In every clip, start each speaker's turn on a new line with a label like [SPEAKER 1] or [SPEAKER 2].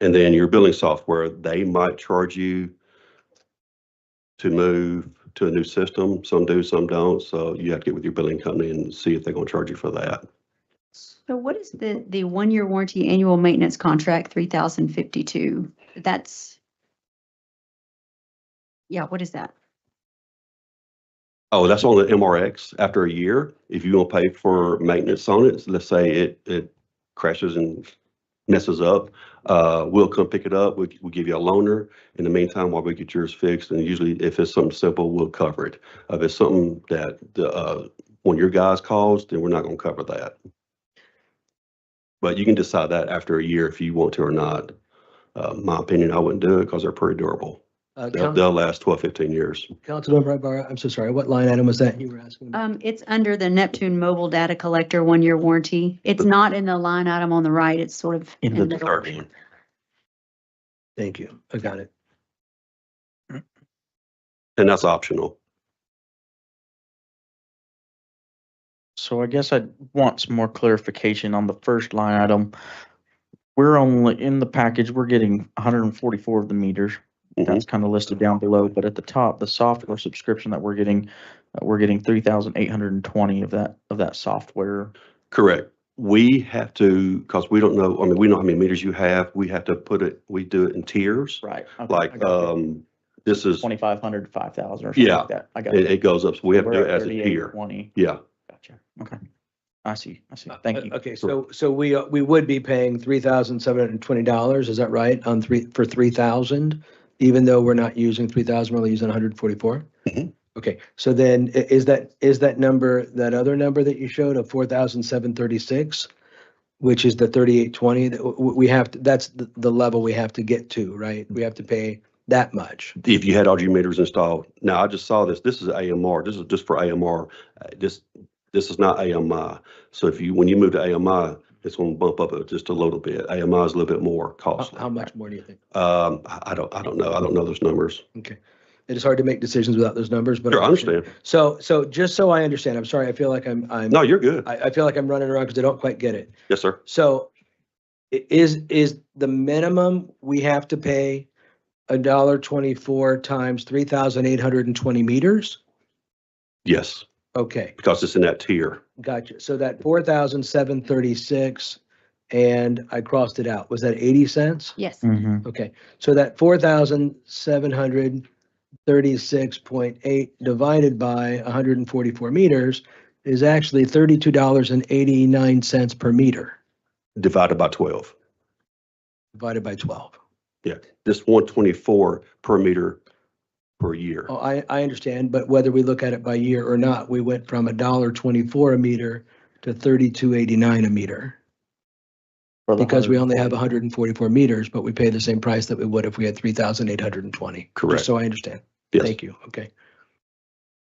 [SPEAKER 1] And then your billing software, they might charge you to move to a new system. Some do, some don't. So you have to get with your billing company and see if they're going to charge you for that.
[SPEAKER 2] So what is the, the one-year warranty annual maintenance contract, three thousand fifty-two? That's. Yeah, what is that?
[SPEAKER 1] Oh, that's on the MRX. After a year, if you don't pay for maintenance on it, let's say it, it crashes and messes up, uh, we'll come pick it up. We'll, we'll give you a loaner. In the meantime, while we get yours fixed, and usually if it's something simple, we'll cover it. Uh, If it's something that the, uh, one of your guys calls, then we're not gonna cover that. But you can decide that after a year if you want to or not. Uh, my opinion, I wouldn't do it because they're pretty durable.
[SPEAKER 3] Uh,
[SPEAKER 1] They'll,
[SPEAKER 3] Coun-
[SPEAKER 1] they'll last 12, 15 years.
[SPEAKER 3] Councilmember Ibarra, I'm so sorry, what line item was that you were asking? about?
[SPEAKER 2] Um, it's under the Neptune Mobile Data Collector one-year warranty. It's not in the line item on the right. It's sort of.
[SPEAKER 3] In the
[SPEAKER 2] middle.
[SPEAKER 1] third one.
[SPEAKER 3] Thank you, I got it.
[SPEAKER 1] And that's optional.
[SPEAKER 4] So I guess I want some more clarification on the first line item. We're only, in the package, we're getting hundred and forty-four of the meters.
[SPEAKER 1] Mhm.
[SPEAKER 4] That's kind of listed down below, but at the top, the software subscription that we're getting, uh, we're getting three thousand eight hundred and twenty of that, of that software.
[SPEAKER 1] Correct. We have to, because we don't know, I mean, we know how many meters you have. We have to put it, we do it in tiers.
[SPEAKER 4] Right.
[SPEAKER 1] Like, um, this is, it,
[SPEAKER 4] Twenty-five hundred to five thousand or something
[SPEAKER 1] Yeah,
[SPEAKER 4] like that. I got
[SPEAKER 1] it
[SPEAKER 4] it.
[SPEAKER 1] goes up. So we have to
[SPEAKER 4] We're
[SPEAKER 1] do it
[SPEAKER 4] at
[SPEAKER 1] as a
[SPEAKER 4] 38,
[SPEAKER 1] tier.
[SPEAKER 4] Twenty,
[SPEAKER 1] Yeah,
[SPEAKER 4] gotcha, okay. I see, I see, thank you.
[SPEAKER 3] Uh, Okay, so, so we, uh, we would be paying three thousand seven hundred and twenty dollars, is that right, on three, for three thousand? Even though we're not using three thousand, we're only using hundred and forty-four?
[SPEAKER 1] Mhm.
[SPEAKER 3] Okay, so then i- is that, is that number, that other number that you showed of four thousand seven thirty-six? Which is the thirty-eight twenty, that w- w- we have, to that's the, the level we have to get to, right? We have to pay that much.
[SPEAKER 1] if you had all your meters installed. Now, I just saw this. This is AMR. This is just for AMR. Uh, This, this is not AMI. So if you, when you move to AMI, it's going to bump up just a little bit. AMI is a little bit more
[SPEAKER 3] How-
[SPEAKER 1] costly.
[SPEAKER 3] How much more do you think?
[SPEAKER 1] Um, I I don't, I don't know. I don't know those numbers.
[SPEAKER 3] It is hard to make decisions without those numbers, but.
[SPEAKER 1] Sure, I understand.
[SPEAKER 3] So, so just so I understand, I'm sorry, I feel like I'm, I'm,
[SPEAKER 1] No, you're good.
[SPEAKER 3] I, I feel like I'm running around because I don't quite get it.
[SPEAKER 1] Yes, sir.
[SPEAKER 3] So i- is, is the minimum we have to pay a dollar twenty-four times three thousand eight hundred and twenty meters?
[SPEAKER 1] Yes,
[SPEAKER 3] Okay,
[SPEAKER 1] because it's in that tier.
[SPEAKER 3] gotcha. So that four thousand seven thirty-six and I crossed it out. Was that eighty cents?
[SPEAKER 2] Yes.
[SPEAKER 4] Mhm.
[SPEAKER 3] Okay, so that four thousand seven hundred thirty-six point eight divided by hundred and forty-four meters is actually thirty-two dollars and eighty-nine cents per meter
[SPEAKER 1] divided by 12.
[SPEAKER 3] divided by twelve.
[SPEAKER 1] This 124 per meter per year.
[SPEAKER 3] Oh, I, I understand, but whether we look at it by year or not, we went from a dollar twenty-four a meter to thirty-two eighty-nine a meter.
[SPEAKER 4] For the
[SPEAKER 3] Because we only have
[SPEAKER 4] 140.
[SPEAKER 3] hundred and forty-four meters, but we pay the same price that we would if we had three thousand eight hundred and twenty.
[SPEAKER 1] Correct.
[SPEAKER 3] Just so I understand.
[SPEAKER 1] Yes,
[SPEAKER 3] Thank you. Okay.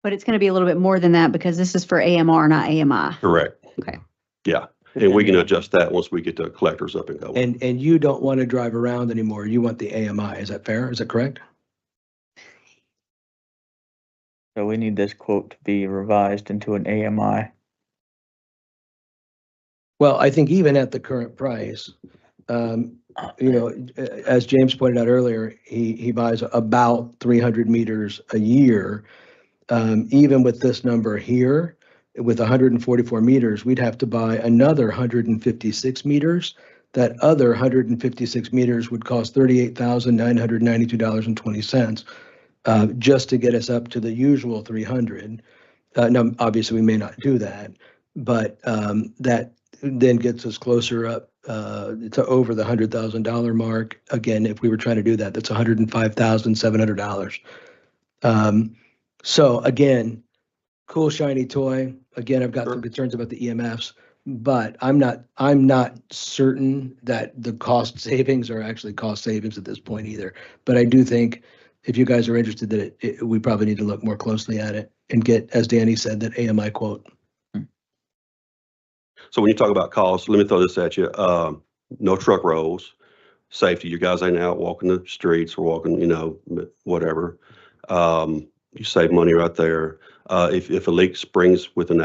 [SPEAKER 2] But it's going to be a little bit more than that because this is for AMR, not AMI.
[SPEAKER 1] correct.
[SPEAKER 2] Okay.
[SPEAKER 1] Yeah, and we can adjust that once we get the collectors up and going.
[SPEAKER 3] And, and you don't want to drive around anymore. You want the AMI. Is that fair? Is that correct?
[SPEAKER 4] So we need this quote to be revised into an AMI.
[SPEAKER 3] Well, I think even at the current price, um, you know, a- as James pointed out earlier, he, he buys about three hundred meters a year. Um, even with this number here, with hundred and forty-four meters, we'd have to buy another hundred and fifty-six meters. That other hundred and fifty-six meters would cost thirty-eight thousand nine hundred ninety-two dollars and twenty cents, uh, just to get us up to the usual three hundred. Uh, now, obviously, we may not do that, but, um, that then gets us closer up uh, to over the hundred thousand dollar mark. Again, if we were trying to do that, that's one hundred and five thousand seven hundred dollars. Um, so again, cool shiny toy. Again, I've got
[SPEAKER 1] Sure.
[SPEAKER 3] some concerns about the EMFs, but I'm not I'm not certain that the cost savings are actually cost savings at this point either. But I do think if you guys are interested, that it, it, we probably need to look more closely at it and get, as Danny said, that AMI quote.
[SPEAKER 1] So when you talk about costs, let me throw this at you. Um, No truck rolls, safety, your guys ain't out walking the streets or walking, you know, whatever. Um, You save money right there. Uh, If, if a leak springs within